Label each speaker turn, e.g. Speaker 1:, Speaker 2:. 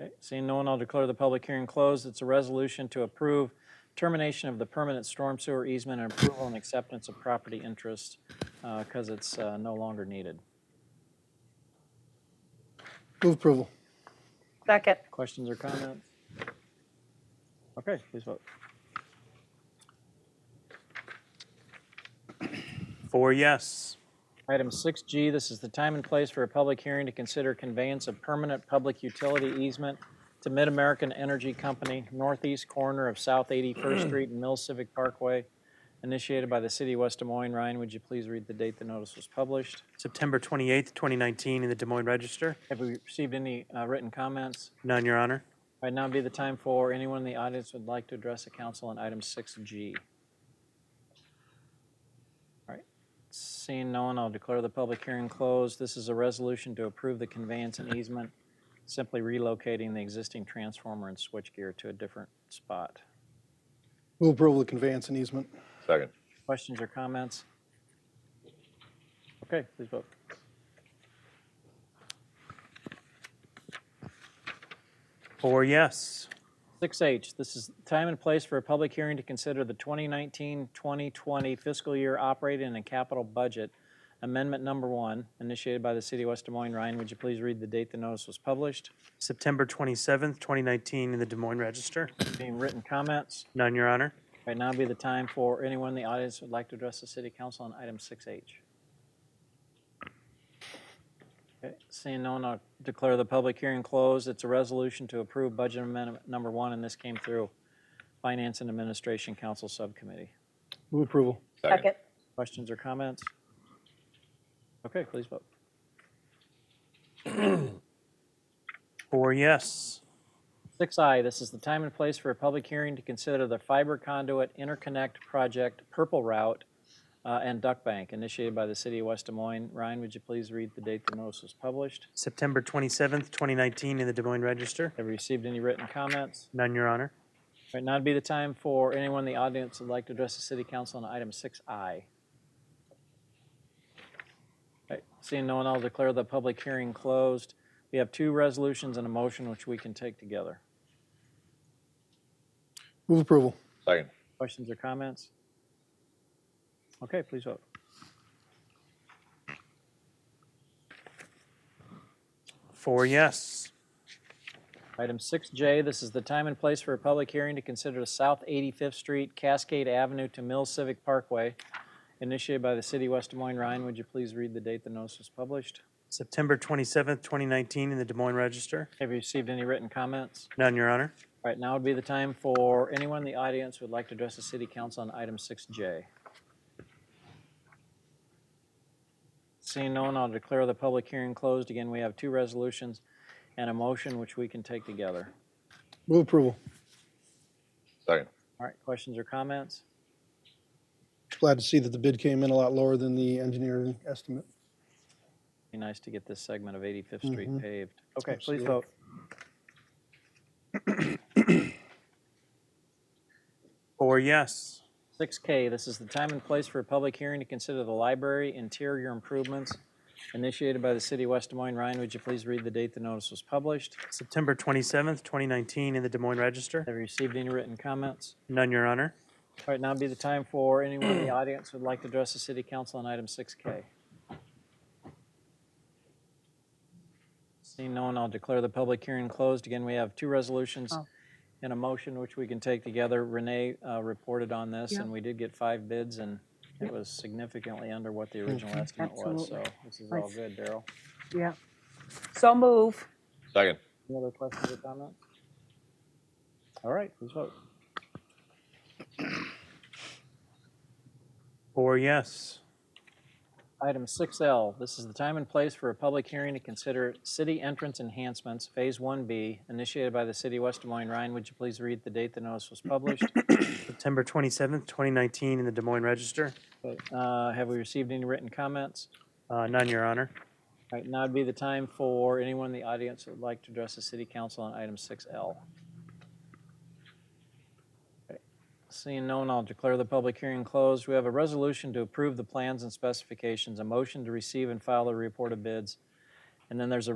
Speaker 1: Okay, seeing no one, I'll declare the public hearing closed. It's a resolution to approve termination of the permanent storm sewer easement and approval and acceptance of property interest because it's uh, no longer needed.
Speaker 2: Move approval.
Speaker 3: Second.
Speaker 1: Questions or comments? Okay, please vote.
Speaker 4: Four yes.
Speaker 1: Item 6G, this is the time and place for a public hearing to consider conveyance of permanent public utility easement to Mid-American Energy Company, northeast corner of South 81st Street and Mill Civic Parkway, initiated by the city of West Des Moines. Ryan, would you please read the date the notice was published?
Speaker 4: September 28th, 2019, in the Des Moines Register.
Speaker 1: Have we received any uh, written comments?
Speaker 4: None, Your Honor.
Speaker 1: Right now would be the time for anyone in the audience who would like to address the council on item 6G. All right, seeing no one, I'll declare the public hearing closed. This is a resolution to approve the conveyance and easement, simply relocating the existing transformer and switchgear to a different spot.
Speaker 2: Move approval of conveyance and easement.
Speaker 5: Second.
Speaker 1: Questions or comments? Okay, please vote.
Speaker 4: Four yes.
Speaker 1: 6H, this is time and place for a public hearing to consider the 2019-2020 fiscal year operating and capital budget, amendment number one, initiated by the city of West Des Moines. Ryan, would you please read the date the notice was published?
Speaker 4: September 27th, 2019, in the Des Moines Register.
Speaker 1: Any written comments?
Speaker 4: None, Your Honor.
Speaker 1: Right now would be the time for anyone in the audience who would like to address the city council on item 6H. Okay, Seeing no one, I'll declare the public hearing closed. It's a resolution to approve budget amendment number one, and this came through Finance and Administration Council Subcommittee.
Speaker 2: Move approval.
Speaker 3: Second.
Speaker 1: Questions or comments? Okay, please vote.
Speaker 4: Four yes.
Speaker 1: Six I, this is the time and place for a public hearing to consider the fiber conduit interconnect project Purple Route uh, and Duck Bank initiated by the city of West Des Moines. Ryan, would you please read the date the notice was published?
Speaker 4: September 27th, 2019, in the Des Moines Register.
Speaker 1: Have you received any written comments?
Speaker 4: None, Your Honor.
Speaker 1: Right now would be the time for anyone in the audience who'd like to address the city council on item six I. Seeing no one, I'll declare the public hearing closed. We have two resolutions and a motion which we can take together.
Speaker 2: Move approval.
Speaker 5: Second.
Speaker 1: Questions or comments? Okay, please vote.
Speaker 4: Four yes.
Speaker 1: Item 6J, this is the time and place for a public hearing to consider the South 85th Street Cascade Avenue to Mill Civic Parkway initiated by the city of West Des Moines. Ryan, would you please read the date the notice was published?
Speaker 4: September 27th, 2019, in the Des Moines Register.
Speaker 1: Have you received any written comments?
Speaker 4: None, Your Honor.
Speaker 1: All right, now would be the time for anyone in the audience who would like to address the city council on item 6J. Seeing no one, I'll declare the public hearing closed. Again, we have two resolutions and a motion which we can take together.
Speaker 2: Move approval.
Speaker 5: Second.
Speaker 1: All right, questions or comments?
Speaker 2: Glad to see that the bid came in a lot lower than the engineering estimate.
Speaker 1: Be nice to get this segment of 85th Street
Speaker 2: Mhm.
Speaker 1: paved. Okay, please
Speaker 2: Absolutely.
Speaker 1: vote.
Speaker 4: Four yes.
Speaker 1: 6K, this is the time and place for a public hearing to consider the library interior improvements initiated by the city of West Des Moines. Ryan, would you please read the date the notice was published?
Speaker 4: September 27th, 2019, in the Des Moines Register.
Speaker 1: Have you received any written comments?
Speaker 4: None, Your Honor.
Speaker 1: All right, now would be the time for anyone in the audience who would like to address the city council on item 6K. Seeing no one, I'll declare the public hearing closed. Again, we have two resolutions
Speaker 3: Oh.
Speaker 1: and a motion which we can take together. Renee uh, reported on this,
Speaker 3: Yeah.
Speaker 1: and we did get five bids, and it was significantly under what the original estimate was, so
Speaker 3: Absolutely.
Speaker 1: this is all
Speaker 3: Nice.
Speaker 1: good, Daryl.
Speaker 3: Yeah. So move.
Speaker 5: Second.
Speaker 1: Any other questions or comments? All right, please vote.
Speaker 4: Four yes.
Speaker 1: Item 6L, this is the time and place for a public hearing to consider city entrance enhancements, Phase 1B, initiated by the city of West Des Moines. Ryan, would you please read the date the notice was published?
Speaker 4: September 27th, 2019, in the Des Moines Register.
Speaker 1: Uh, Have we received any written comments?
Speaker 4: Uh, None, Your Honor.
Speaker 1: All right, now would be the time for anyone in the audience that would like to address the city council on item 6L. Okay, Seeing no one, I'll declare the public hearing closed. We have a resolution to approve the plans and specifications, a motion to receive and file the report of bids, and then there's a